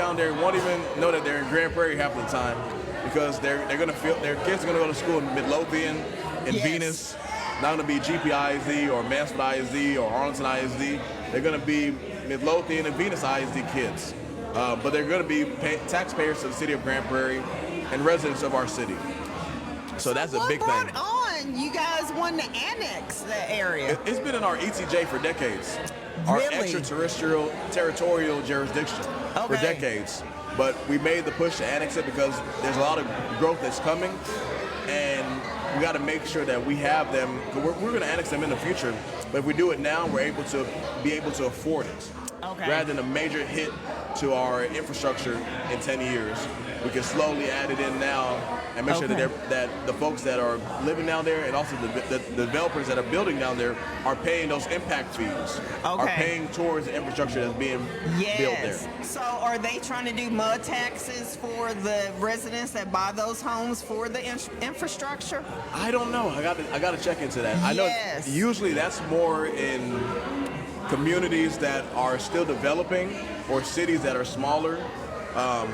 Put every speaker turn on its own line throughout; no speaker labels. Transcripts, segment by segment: down there won't even know that they're in Grand Prairie half the time because they're they're gonna feel their kids are gonna go to school in Midlothian, in
Yes.
Venus. Not gonna be GPISD or Mansfield ISD or Arlington ISD. They're gonna be Midlothian and Venus ISD kids, uh, but they're gonna be pay- taxpayers to the city of Grand Prairie and residents of our city. So that's a
what
big
brought
thing.
on you guys wanting to annex the area?
It- It's been in our ETJ for decades. Our
Really?
extraterrestrial territorial jurisdiction for
Okay.
decades. But we made the push to annex it because there's a lot of growth that's coming and we got to make sure that we have them. 'cause We're, we're going to annex them in the future, but if we do it now, we're able to be able to afford it.
Okay.
Rather than a major hit to our infrastructure in 10 years, we can slowly add it in now and make sure that
Okay.
they're that the folks that are living down there and also the, the, the developers that are building down there are paying those impact fees, are
Okay.
paying towards the infrastructure that's being built
Yes.
there.
So are they trying to do mud taxes for the residents that buy those homes for the in- infrastructure?
I don't know. I got to I got to check into that. I know
Yes.
usually that's more in communities that are still developing or cities that are smaller. Um,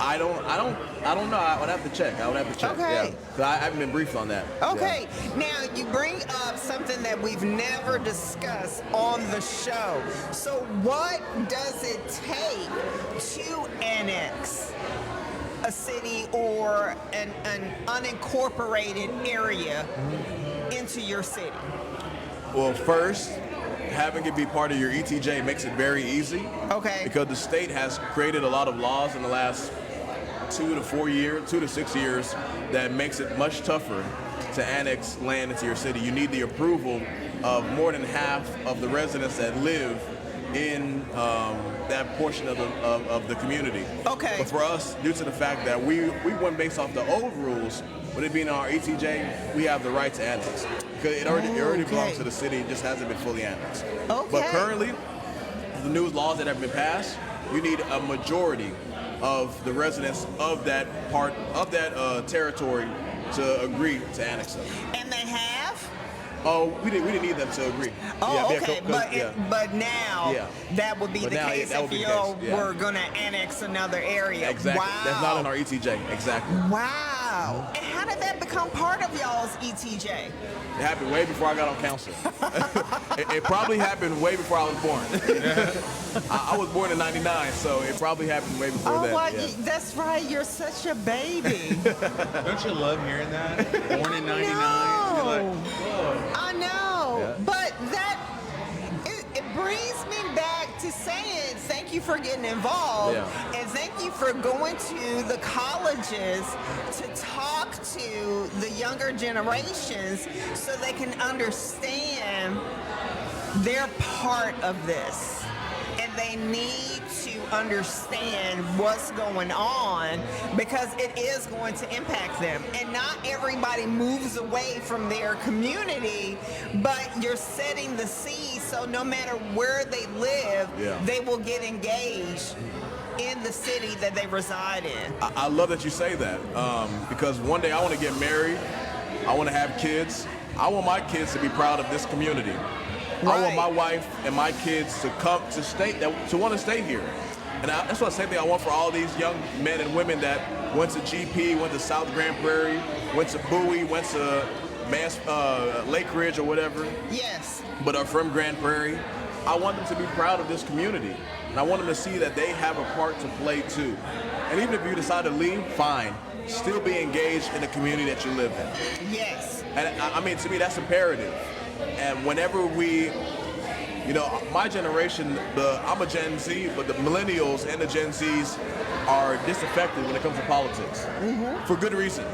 I don't I don't I don't know. I would have to check. I would have to check.
Okay.
Yeah. 'Cause I, I haven't been briefed on that. Yeah.
Okay, now you bring up something that we've never discussed on the show. So, what does it take to annex a city or an, an unincorporated area into your city?
Well, first, having it be part of your ETJ makes it very easy
Okay.
because the state has created a lot of laws in the last two to four years, two to six years, that makes it much tougher to annex land into your city. You need the approval of more than half of the residents that live in um, that portion of the, of, of the community.
Okay.
But for us, due to the fact that we, we went based off the old rules, with it being our ETJ, we have the right to annex. Because it already, it already
Okay.
belongs to the city, it just hasn't been fully annexed. But
Okay.
currently, the new laws that have been passed, you need a majority of the residents of that part of that uh, territory to agree to annex them.
and they have?
Oh, we didn't we didn't need them to agree.
Oh,
Yeah, yeah,
okay,
co- co-
but it,
yeah.
but now
Yeah.
that would be
But
the
now, yeah,
case
that would
if
be the
y'all
case, yeah.
were gonna annex another area.
exactly.
Wow.
That's not in our ETJ. Exactly.
Wow. And how did that become part of y'all's E ETJ?
It happened way before I got on council. it, it probably happened way before I was born. I, I was born in '99, so it probably happened way before
Oh,
that.
wow,
yeah.
you- that's right. You're such a baby.
Don't you love hearing that? Born in '99.
No. I know.
Yeah.
But that, it, it brings me back to saying thank you for getting involved.
Yeah.
And thank you for going to the colleges to talk to the younger generations so they can understand they're part of this and they need to understand what's going on because it is going to impact them and not everybody moves away from their community but you're setting the seed so no matter where they live
Yeah.
they will get engaged in the city that they reside in
I, I love that you say that um, because one day I want to get married. I want to have kids. I want my kids to be proud of this community. I
Right.
want my wife and my kids to come to stay that to want to stay here. And I, that's what the same thing I want for all these young men and women that went to GP, went to South Grand Prairie, went to Bowie, went to Mass, uh, Lake Ridge or whatever
yes
but are from Grand Prairie. I want them to be proud of this community. And I want them to see that they have a part to play too. And even if you decide to leave, fine. Still be engaged in the community that you live in.
yes
And I I mean, to me, that's imperative. And whenever we, you know, my generation, the I'm a Gen Z, but the millennials and the Gen Zs are disaffected when it comes to politics for good reason.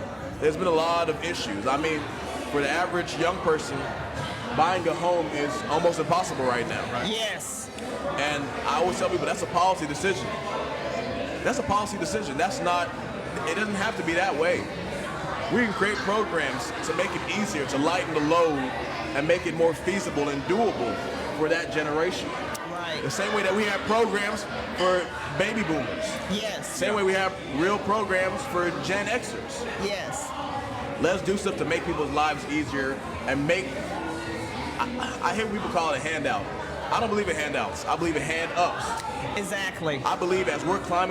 There's been a lot of issues. I mean, for the average young person, buying a home is almost impossible right now.
yes
And I always tell people that's a policy decision. That's a policy decision. That's not, it doesn't have to be that way. We can create programs to make it easier, to lighten the load, and make it more feasible and doable for that generation. The
right
same way that we have programs for baby boomers.
yes
Same way we have real programs for Gen Xers.
yes
Let's do stuff to make people's lives easier and make. I, I hear people call it a handout. I don't believe in handouts. I believe in hand ups.
exactly
I believe as we're climbing.